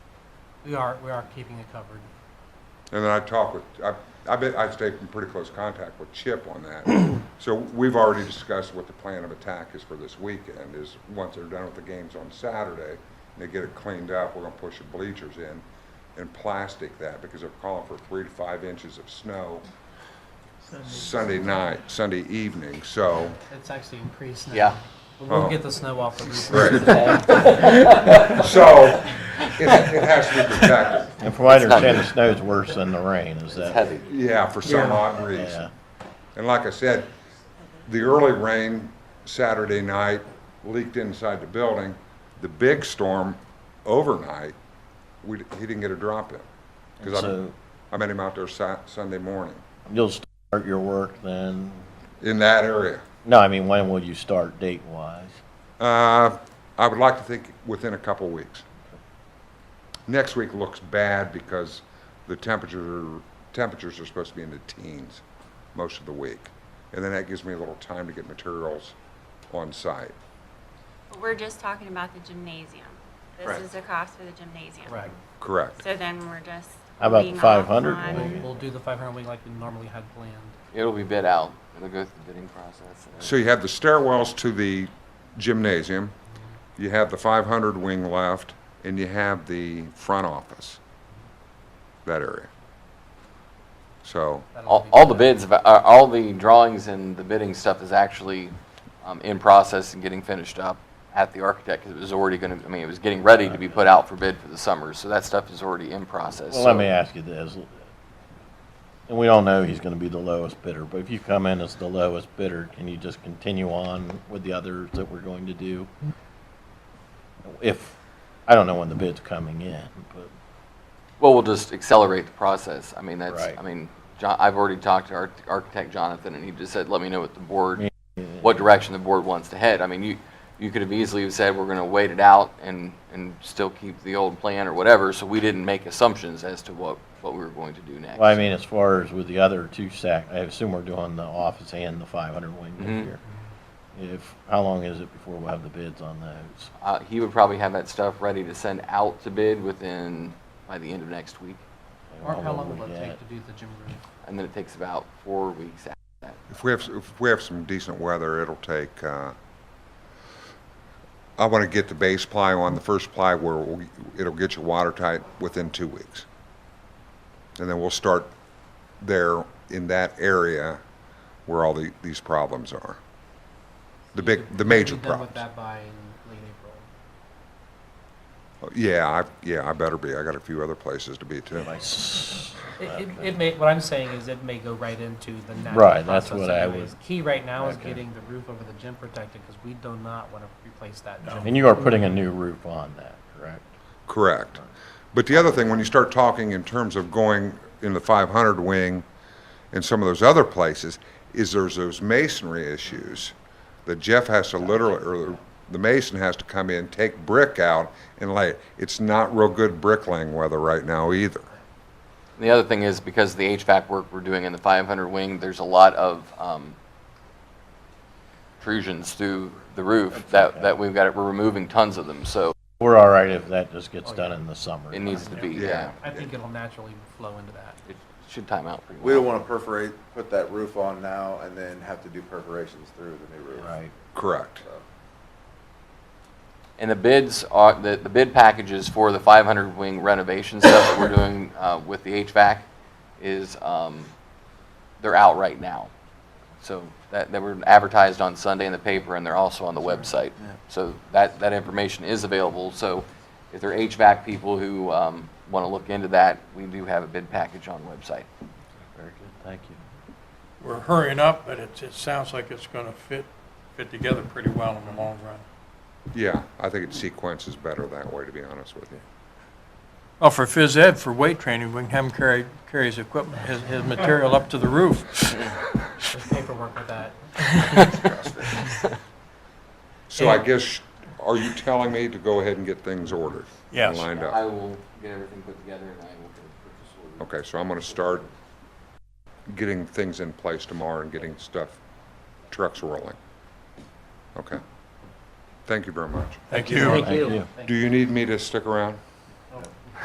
We are, we are keeping it covered. And then I talked with, I, I bet I stayed in pretty close contact with Chip on that. So we've already discussed what the plan of attack is for this weekend, is once they're done with the games on Saturday, and they get it cleaned up, we're gonna push the bleachers in and plastic that, because they're calling for three to five inches of snow Sunday night, Sunday evening, so. It's actually increased now. Yeah. But We'll Oh. get the snow off the roof. So, it, it has to be protected, And from what I understand, the snow's worse than the rain, is It's that? heavy. yeah, for some Yeah. odd reason. Yeah. And like I said, the early rain Saturday night leaked inside the building. The big storm overnight, we, he didn't get a drop in. Because I, So I met him out there Sa- Sunday morning, you'll start your work then? in that area. No, I mean, when will you start date-wise? Uh, I would like to think within a couple weeks. Next week looks bad because the temperature, temperatures are supposed to be in the teens most of the week. And then that gives me a little time to get materials on site. We're just talking about the gymnasium. This Right. is the cost for the gymnasium. Right. Correct. So then we're just. How about the holding off 500 on- We'll, one? we'll do the 500 week like we normally had planned. It'll be bid out. It'll go through the bidding process. So you have the stairwells to the gymnasium, you have the 500 wing left, and you have the front office, that area. So, That'll All, be- all the bids, have- uh, all the drawings and the bidding stuff is actually um, in process and getting finished up at the architect. 'cause It was already going to, I mean, it was getting ready to be put out for bid for the summer. So that stuff is already in process. Well, let so- me ask you this. And we all know he's gonna be the lowest bidder, but if you come in as the lowest bidder, can you just continue on with the others that we're going to do? If, I don't know when the bid's coming in, but. Well, we'll just accelerate the process. I mean, that's, Right. I mean, John, I've already talked to arch- architect Jonathan, and he just said, let me know what the board, Mm-hmm. what direction the board wants to head. I mean, you, you could have easily have said, we're going to wait it out and, and still keep the old plan or whatever, so we didn't make assumptions as to what, what we were going to do next. Well, I mean, as far as with the other two sac, I assume we're doing the office and the five hundred wing Mhm. this year. If, how long is it before we'll have the bids on those? Uh, he would probably have that stuff ready to send out to bid within, by the end of next week, Mark, how long we will it take get? to do the gym roof? and then it takes about four weeks after that. if we have, if we have some decent weather, it'll take, uh, I want to get the base ply on, the first ply where we'll- it'll get you watertight within two weeks. And then we'll start there in that area where all the, these problems are. The big, the major Be done with that problems. by late April. Yeah, I, yeah, I better be. I got a few other places to be too. Like, s- It, it, it may, what I'm saying is it may go right into the natural Right, that's process what I anyways. Key right now is Okay. getting the roof over the gym protected because we do not want to replace that gym. And you are putting a new roof on that, correct? Correct. But the other thing, when you start talking in terms of going in the 500 wing and some of those other places, is there's those masonry issues that Jeff has to literally, or the mason has to come in, take brick out and lay it. It's not real good bricklaying weather right now either. The other thing is because of the HVAC work we're doing in the 500 wing, there's a lot of um, protrusions through the roof that, that we've got, we're removing tons of them, so We're all right if that just gets done in the summer. Oh, it needs to be, Yeah. yeah. I think it'll naturally flow into that. It should time out pretty well. We don't want to perforate, put that roof on now and then have to do perforations through the new roof. Right. Correct. And the bids are, the, the bid packages for the 500 wing renovation stuff that we're doing uh, with the HVAC is, um, they're out right now. So that, they were advertised on Sunday in the paper and they're also on the website. So that, that information is available. So if there are HVAC people who want to look into that, we do have a bid package on website. Very good, thank you. we're hurrying up, but it, it sounds like it's gonna fit, fit together pretty well in the long run. Yeah, I think it sequences better that way, to be honest with you. Well, Oh, for phys ed, for weight training, we can have him carry, carry his equipment, his, his material up to the roof. There's paperwork with that. So I guess, are you telling me to go ahead and get things ordered? Yes. And uh, lined I up? will get everything put together and I will get a purchase order. Okay, so I'm gonna start getting things in place tomorrow and getting stuff, trucks rolling. Okay. Thank you very much. Thank you. Thank you. Do you need me to stick around?